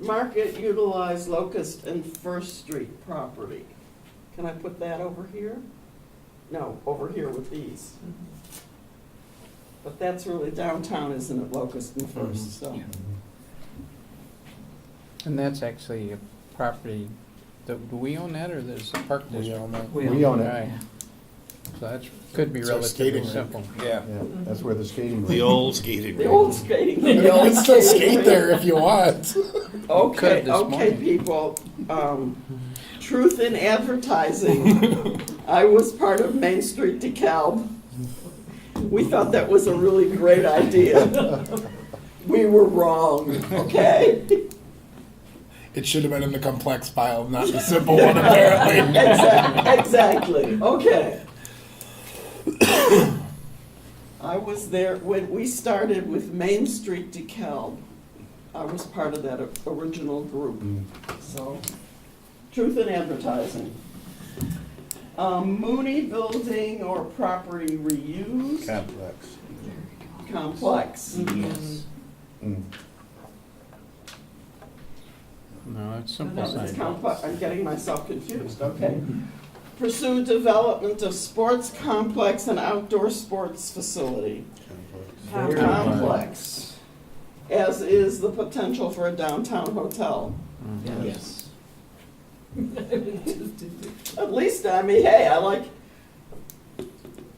Market utilize Locust and First Street property. Can I put that over here? No, over here with these. But that's really downtown, isn't it, Locust and First, so. And that's actually a property, that- do we own that, or there's the park We district? own that. We own it, Right. So that's, could be It's our skating relatively rink. simple. Yeah. yeah, that's where the skating rink. Mm, The old skating The rink. old skating. You know, we still skate there if you want. Okay, this okay, morning. people, um, truth in advertising. I was part of Main Street DeKalb. We thought that was a really great idea. We were wrong, okay? It should have been in the complex file, not the simple one, apparently. Exac- Exactly, okay. I was there, when we started with Main Street DeKalb, I was part of that o- original group. So, truth in advertising. Um, Mooney Building or property reuse Complex. complex. Yes. Mm. No, it's No, simple it's sign. complex, I'm getting myself confused, okay. Pursue development of sports complex and outdoor sports facility. Complex, as is the potential for a downtown hotel. Mm-hmm. Mhm. Yes. At least, I mean, hey, I like,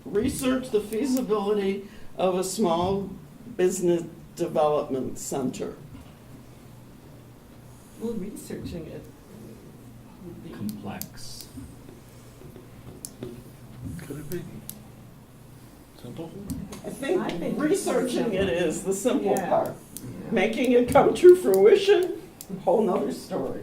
research the feasibility of a small business development center. Well, researching it would be. complex. Could it be? Simple? I I think think it's researching it simple. is the simple Yeah. part. Making it come to fruition, whole nother story.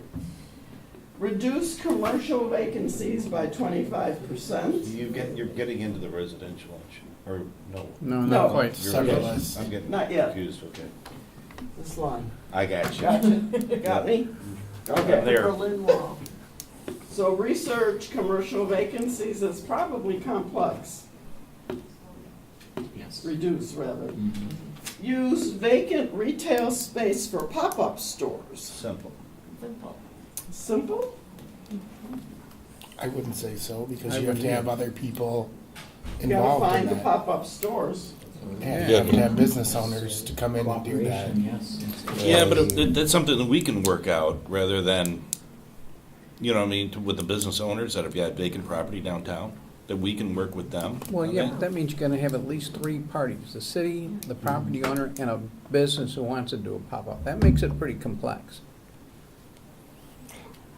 Reduce commercial vacancies by twenty-five percent. You get, you're getting into the residential option, or no? No, No. not quite. You're- Severalist. I'm getting Not yet. confused, okay. This line. I got you. Gotcha, got me? I'm Okay. there. Berlin Wall. So research commercial vacancies is probably complex, Yes. reduce rather. Mhm. Mm-hmm. Use vacant retail space for pop-up stores. Simple. Simple. Simple? I wouldn't say so, because I you have to wouldn't. have other people You gotta involved in find the that. pop-up stores. Yeah, You have to have business owners to come in and do that. Cooperation, yes, yes. Yeah, but it- that- that's something that we can work out rather than, you know, what I mean, to- with the business owners that have got vacant property downtown, that we can work with them. Well, on yeah, that. but that means you're gonna have at least three parties, the city, the Mm-hmm. property owner, and a business who wants to do a pop-up. That makes it pretty complex.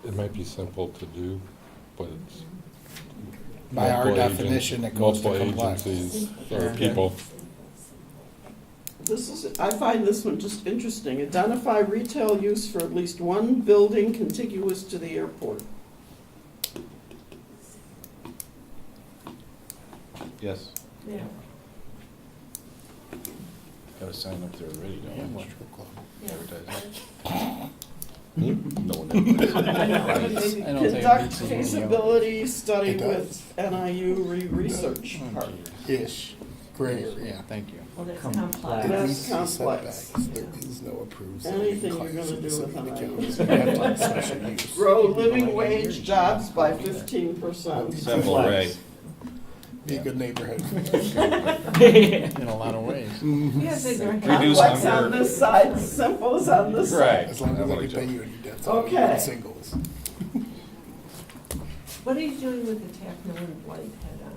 It might be simple to do, but it's. By our multiple agent- definition, it goes to Multiple complex. agencies or Yeah. people. This is, I find this one just interesting. Identify retail use for at least one building contiguous to the airport. Yes. Yeah. Got to sign up there already, don't we? Advertising. No I one. mean, I don't think it Conduct needs to be- feasibility study It does. Oh, with NIU re-research part. Ish, gray area. Thank you. Well, that's Complex. complex. That's Reduce the complex. setbacks. There is no approved. zoning Anything you're class gonna in do city with an of item. Kansas. You have to have special use. Grow living wage jobs by fifteen percent. Simple, right. Be a good neighborhood. In a lot of ways. Yes, they don't have. Reduce Complex on hunger. this side, simple is on this side. As long as they can pay you any debts, I'll be Okay. singles. What are you doing with the Tackman and Whitehead on?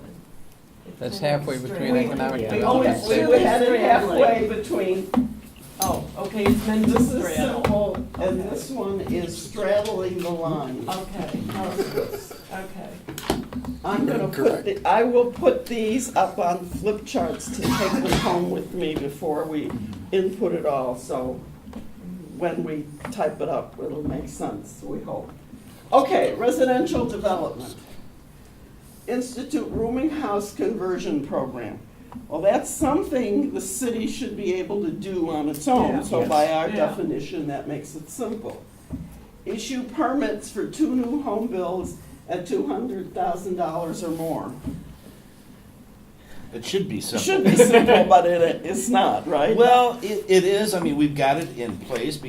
It's That's kind of halfway straight. between economic Yeah. We Oh, always, it's we Really had it straight halfway line. between, Oh, okay, it's meant to this is straddle. simple, and this one is straddling the line. Okay, oh, okay. I'm gonna put, the- I will put these up on flip charts to take them home with me before we input it all, so when we type it up, it'll make sense, we hope. Okay, residential development. Institute rooming house conversion program. Well, that's something the city should be able to do on its own, Yeah. so by our Yeah. definition, that makes it simple. Issue permits for two new home builds at two hundred thousand dollars or more. It should be It simple. should be simple, but it, it's not, right? Well, it, it is, I mean, we've got it in place because